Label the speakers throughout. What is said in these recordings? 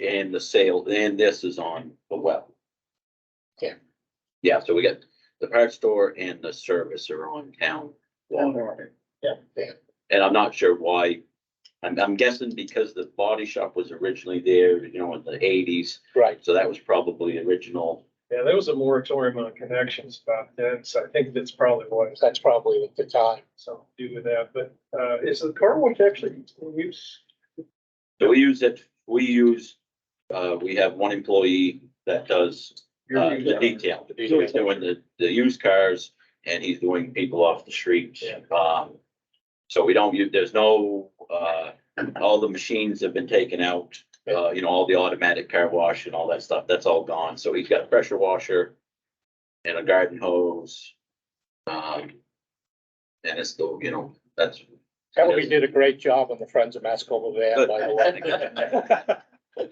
Speaker 1: and the sale, and this is on the web.
Speaker 2: Yeah.
Speaker 1: Yeah, so we got the parts store and the service are on town. wall.
Speaker 2: One more. Yeah, yeah,
Speaker 1: And I'm not sure why. I'm, I'm guessing because the body shop was originally there, you know, in the eighties,
Speaker 2: right.
Speaker 1: so that was probably original.
Speaker 3: Yeah, there was a moratorium on connections back then, so I think that's probably what it's
Speaker 2: That's probably the time.
Speaker 3: something to do with that, but, uh, is the car wash actually in use?
Speaker 1: So we use it, we use, uh, we have one employee that does uh, the detail. He's doing the, the used cars and he's doing people off the streets. Um, so we don't, use. there's no, uh, all the machines have been taken out. Uh, you know, all the automatic car wash and all that stuff, that's all gone. So he's got a pressure washer and a garden hose. Um, and it's still, you know, that's,
Speaker 2: Kelly did a great job on the Friends of Mascoma van, by the way.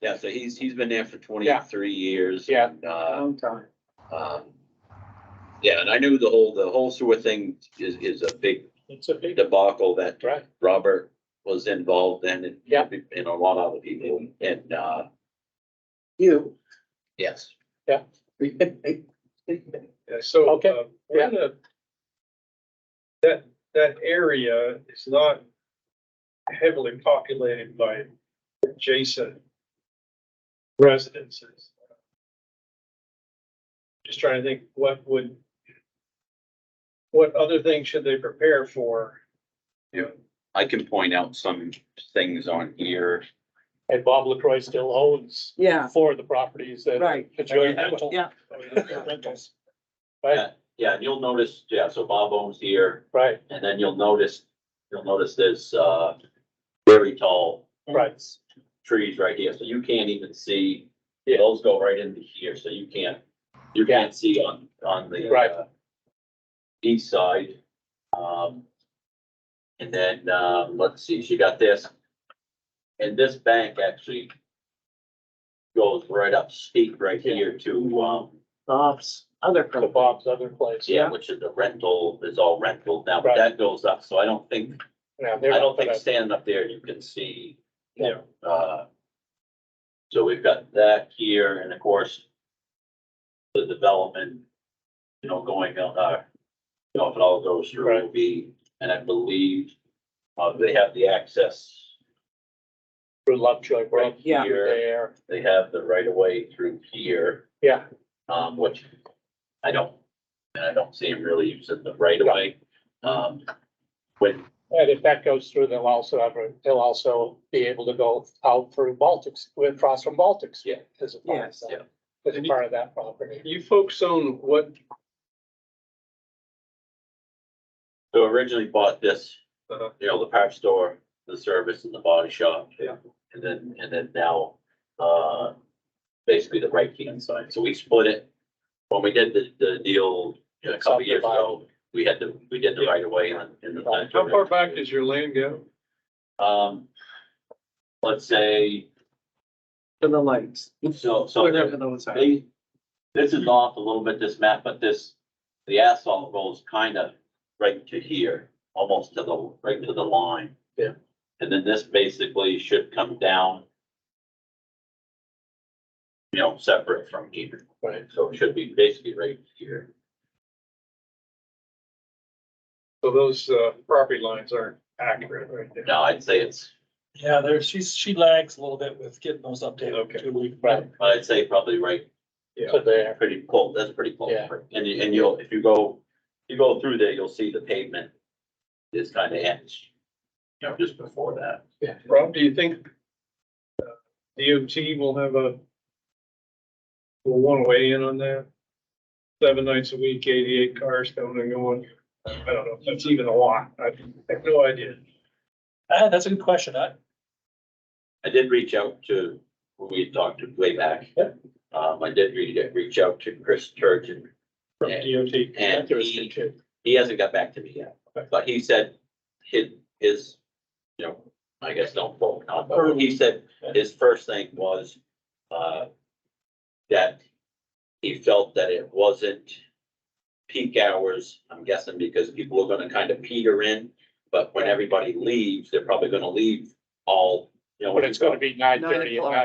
Speaker 1: yeah, so he's, he's been there for twenty-three years.
Speaker 2: Yeah.
Speaker 1: and, Uh,
Speaker 3: time.
Speaker 1: um, yeah, and I knew the whole, the whole sewer thing is, is a big
Speaker 2: It's a big,
Speaker 1: debacle that
Speaker 2: right,
Speaker 1: Robert was involved in and.
Speaker 2: Yeah.
Speaker 1: And a lot of other people and, uh,
Speaker 4: You.
Speaker 1: yes.
Speaker 3: Yeah, so,
Speaker 2: Okay,
Speaker 3: uh, we're in a- that, that area is not heavily populated by adjacent residences. Just trying to think, what would, what other things should they prepare for? You know,
Speaker 1: I can point out some things on here.
Speaker 2: and Bob LaCroy still owns
Speaker 4: Yeah,
Speaker 2: four of the properties that.
Speaker 4: Right.
Speaker 2: that you're rental.
Speaker 4: Yeah.
Speaker 2: Rentals. Right,
Speaker 1: Yeah, and you'll notice, yeah, so Bob owns here
Speaker 2: right,
Speaker 1: and then you'll notice, you'll notice there's, uh, very tall
Speaker 2: right,
Speaker 1: trees right here. So you can't even see,
Speaker 2: Yeah.
Speaker 1: those go right into here. So you can't, you
Speaker 2: Yeah.
Speaker 1: can't see on, on the.
Speaker 2: Right.
Speaker 1: uh, East side. Um, and then, um, let's see, she got this. And this bank actually goes right up steep right here to, um,
Speaker 4: Bob's other
Speaker 2: to
Speaker 4: problem.
Speaker 2: Bob's other place.
Speaker 1: yeah, which is the rental, is all rental now, but
Speaker 2: Right.
Speaker 1: that goes up. So I don't think,
Speaker 2: Now,
Speaker 1: I
Speaker 2: they're
Speaker 1: don't
Speaker 2: not
Speaker 1: think
Speaker 2: gonna,
Speaker 1: standing up there, you can see
Speaker 3: You know,
Speaker 1: Uh, So we've got that here, and of course, the development, you know, going on, uh, you know, if it all goes through, will be, and I believe, uh, they have the access
Speaker 2: through Lovejoy
Speaker 1: right
Speaker 2: Brook,
Speaker 4: Yeah.
Speaker 1: here,
Speaker 2: there,
Speaker 1: they have the right of way through here,
Speaker 2: yeah,
Speaker 1: um, which I don't, and I don't see them really using the right of way. Um, when,
Speaker 2: and if that goes through, they'll also have, a- they'll also be able to go out through Baltics, across from Baltics.
Speaker 1: Yeah.
Speaker 2: As a part of
Speaker 4: Yes.
Speaker 2: that,
Speaker 1: Yeah.
Speaker 2: as a part of that property.
Speaker 3: You folks own what,
Speaker 1: so originally bought this
Speaker 3: uh,
Speaker 1: you know, the parts store, the service and the body shop.
Speaker 3: Yeah.
Speaker 1: And then, and then now, uh, basically the right hand side. So we split it. When we did the, the deal, you know, a couple years ago, we had the, we did the right of way on, in the.
Speaker 3: how far back does your land go?
Speaker 1: Um, let's say,
Speaker 4: For the lights,
Speaker 1: so, so
Speaker 4: whatever those are.
Speaker 1: they, this is off a little bit, this map, but this, the asphalt goes kind of right to here, almost to the, right to the line.
Speaker 2: Yeah.
Speaker 1: And then this basically should come down. You know, separate from here,
Speaker 2: Right.
Speaker 1: so it should be basically right here.
Speaker 3: So those, uh, property lines aren't accurate right there.
Speaker 1: No, I'd say it's,
Speaker 5: Yeah, there, she's, she lags a little bit with getting those
Speaker 3: Okay.
Speaker 5: updated. too. We-
Speaker 2: Right.
Speaker 1: but I'd say probably right,
Speaker 3: Yeah.
Speaker 2: To there,
Speaker 1: pretty close, that's pretty close.
Speaker 2: Yeah.
Speaker 1: And you, and you'll, if you go, you go through there, you'll see the pavement is kind of ends, you know, just before that.
Speaker 3: Rob, do you think uh, DOT will have a will want to weigh in on that? Seven nights a week, eighty-eight cars coming and going. I don't know if that's even a lot. I have no idea.
Speaker 5: Ah, that's a good question. I,
Speaker 1: I did reach out to, who we had talked to way back.
Speaker 5: Yeah.
Speaker 1: Um, I did reach, reach out to Chris Turgeon,
Speaker 5: from DOT.
Speaker 1: and he,
Speaker 2: interesting.
Speaker 1: he hasn't got back to me yet.
Speaker 5: Okay.
Speaker 1: But he said his, his, you know, I guess don't quote me on, but he said
Speaker 5: Yeah.
Speaker 1: his first thing was, uh, that he felt that it wasn't peak hours, I'm guessing because people are gonna kind of peter in, but when everybody leaves, they're probably gonna leave all, you know. when
Speaker 2: But it's
Speaker 1: you go-
Speaker 2: gonna be nine thirty at
Speaker 4: o'clock.
Speaker 2: night.